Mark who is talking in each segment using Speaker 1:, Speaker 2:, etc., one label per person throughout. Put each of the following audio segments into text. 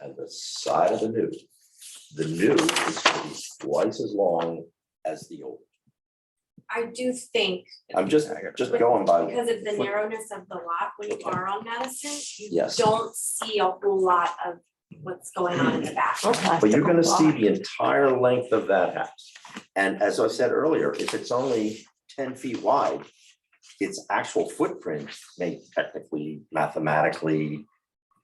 Speaker 1: and the side of the new. The new is gonna be twice as long as the old.
Speaker 2: I do think,
Speaker 1: I'm just, just going by,
Speaker 2: because of the narrowness of the lot, when you are on Madison, you
Speaker 1: Yes.
Speaker 2: don't see a whole lot of what's going on in the back.
Speaker 1: but you're gonna see the entire length of that house. And as I said earlier, if it's only ten feet wide, its actual footprint may technically mathematically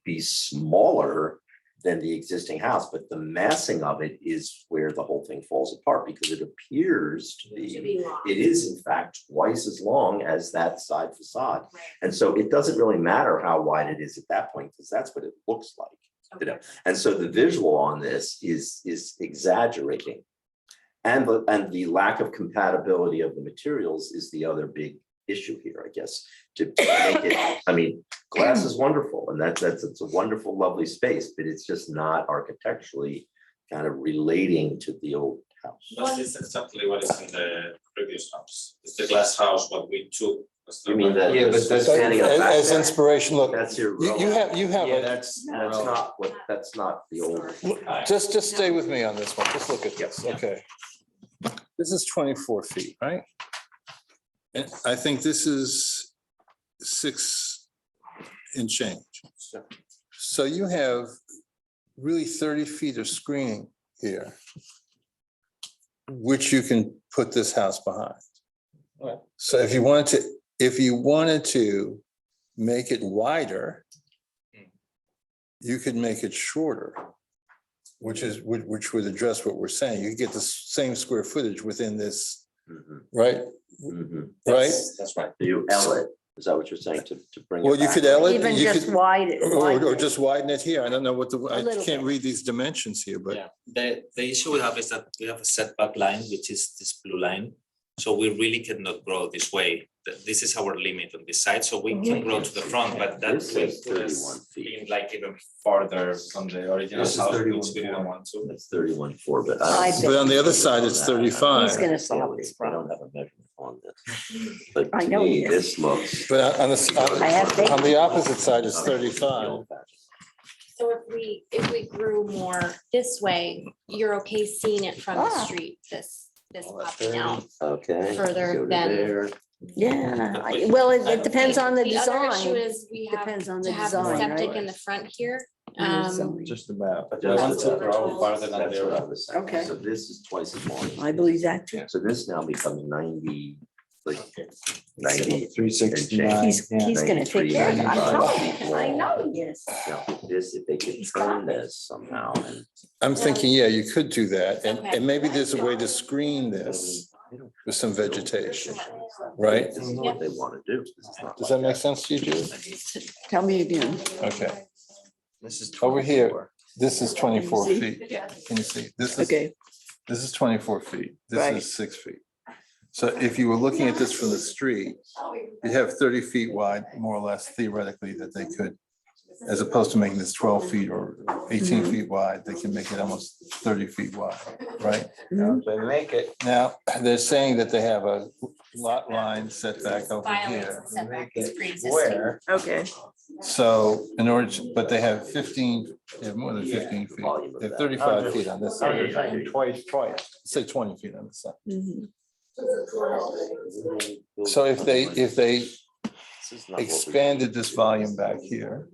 Speaker 1: be smaller than the existing house, but the massing of it is where the whole thing falls apart because it appears to
Speaker 2: It should be long.
Speaker 1: it is in fact twice as long as that side facade.
Speaker 2: Right,
Speaker 1: And so it doesn't really matter how wide it is at that point, because that's what it looks like.
Speaker 2: okay.
Speaker 1: know, And so the visual on this is, is exaggerating. And the, and the lack of compatibility of the materials is the other big issue here, I guess, to make it, I mean, glass is wonderful, and that's, that's, it's a wonderful, lovely space, but it's just not architecturally kind of relating to the old house.
Speaker 2: One-
Speaker 3: But it's exactly what is in the previous house. It's the glass house what we took. was the
Speaker 1: You mean that?
Speaker 4: Yeah, but that's-
Speaker 1: standing up back
Speaker 4: As
Speaker 1: there?
Speaker 4: inspiration, look,
Speaker 1: That's your.
Speaker 4: you, you have, you have,
Speaker 3: Yeah,
Speaker 4: a-
Speaker 3: that's.
Speaker 1: That's not what, that's not the old.
Speaker 4: look, just, just stay with me on this one, just look at this,
Speaker 1: Yeah.
Speaker 4: okay. This is twenty-four feet, right?
Speaker 5: And I think this is six and change. So you have really thirty feet of screening here, which you can put this house behind.
Speaker 4: Right.
Speaker 5: So if you wanted to, if you wanted to make it wider, you could make it shorter, which is, which- which would address what we're saying. You could get the same square footage within this,
Speaker 1: Mhm,
Speaker 5: right?
Speaker 1: mhm.
Speaker 5: Right?
Speaker 3: That's that's right.
Speaker 1: You L it, is that what you're saying, to, to bring it
Speaker 5: Well, you
Speaker 1: back?
Speaker 5: could L it.
Speaker 6: Even
Speaker 5: you
Speaker 6: just
Speaker 5: could-
Speaker 6: wide. it-
Speaker 5: Or, or-
Speaker 6: widen
Speaker 5: or
Speaker 6: it.
Speaker 5: just widen it here. I don't know what the, I
Speaker 6: little
Speaker 5: can't
Speaker 6: bit.
Speaker 5: read these dimensions here, but
Speaker 3: Yeah, the the issue we have is that we have a setback line, which is this blue line. So we really cannot grow this way. Th- This is our limit on this side, so we can grow to the front, but that
Speaker 1: This
Speaker 3: will
Speaker 1: is
Speaker 3: put
Speaker 1: 31
Speaker 3: us
Speaker 1: feet.
Speaker 3: being like even farther from the original
Speaker 1: This is
Speaker 3: house,
Speaker 1: 31
Speaker 3: which we don't want to.
Speaker 1: That's thirty-one four, but.
Speaker 6: I
Speaker 1: I
Speaker 6: bet.
Speaker 1: don't-
Speaker 5: But on the other side, it's
Speaker 1: I don't know.
Speaker 5: 35. He's
Speaker 6: gonna say how it's
Speaker 1: I don't have a measurement on this, but
Speaker 6: I
Speaker 1: to
Speaker 6: know
Speaker 1: me,
Speaker 6: he
Speaker 1: this looks.
Speaker 5: but on- on the, s-
Speaker 6: I have faith.
Speaker 5: uh, on- on the opposite side is
Speaker 1: Uh,
Speaker 5: thirty-five.
Speaker 2: So if we, if we grew more this way, you're okay seeing it from the
Speaker 6: Ah.
Speaker 2: street, this, this popping out.
Speaker 1: Okay.
Speaker 2: Further
Speaker 1: go to
Speaker 2: than-
Speaker 1: there.
Speaker 6: Yeah, I- well, it- it depends on the
Speaker 2: other issue
Speaker 6: design,
Speaker 2: is we have
Speaker 6: depends on the
Speaker 2: to have the
Speaker 6: design,
Speaker 2: septic
Speaker 6: right?
Speaker 2: in the front here.
Speaker 6: And the
Speaker 2: Um,
Speaker 6: design.
Speaker 4: Just about.
Speaker 3: But they want
Speaker 2: That's
Speaker 3: to
Speaker 2: what we're
Speaker 3: grow
Speaker 2: told.
Speaker 3: farther than
Speaker 1: That's
Speaker 3: the
Speaker 1: what I
Speaker 3: original.
Speaker 1: was saying.
Speaker 6: Okay.
Speaker 1: So this is twice as long.
Speaker 6: I believe that too.
Speaker 1: So this now becomes ninety, like ninety.
Speaker 4: Three sixty-nine.
Speaker 6: He's, he's gonna take care of it. I'm telling you, I know he is.
Speaker 1: Now, This, if they could
Speaker 6: He's
Speaker 1: turn
Speaker 6: got it.
Speaker 1: this somehow and.
Speaker 5: I'm thinking, yeah, you could do that, and,
Speaker 2: Okay.
Speaker 5: and maybe there's a way to screen this with some vegetation, right?
Speaker 1: This is what they want to do. This is not
Speaker 5: Does
Speaker 1: like
Speaker 5: that make sense to you, Judy?
Speaker 6: Tell me again.
Speaker 5: Okay,
Speaker 4: This is
Speaker 5: over here, this is twenty-four
Speaker 6: See?
Speaker 5: feet. Can you see? This is,
Speaker 6: Okay,
Speaker 5: this is twenty-four feet, this
Speaker 6: Right.
Speaker 5: is six feet. So if you were looking at this from the street, you have thirty feet wide, more or less theoretically, that they could, as opposed to making this twelve feet or eighteen
Speaker 6: Mhm.
Speaker 5: feet wide, they can make it almost thirty feet wide, right?
Speaker 6: Mm-hmm.
Speaker 4: They make it,
Speaker 5: Now, they're saying that they have a lot line setback over
Speaker 2: violates
Speaker 5: here.
Speaker 2: the setback,
Speaker 4: Make it
Speaker 2: it's pre-existing.
Speaker 4: where?
Speaker 6: okay.
Speaker 5: So in order, to- but they have fifteen, they have more than
Speaker 4: Yeah.
Speaker 5: fifteen feet,
Speaker 1: Volume of
Speaker 5: they have
Speaker 1: that. Oh,
Speaker 5: thirty-five feet on this
Speaker 4: I was
Speaker 5: side,
Speaker 4: thinking twice, twice.
Speaker 5: say twenty feet on this side.
Speaker 6: Mhm.
Speaker 5: So if they, if they
Speaker 1: Oh, This is not what we-
Speaker 5: expanded this volume back here,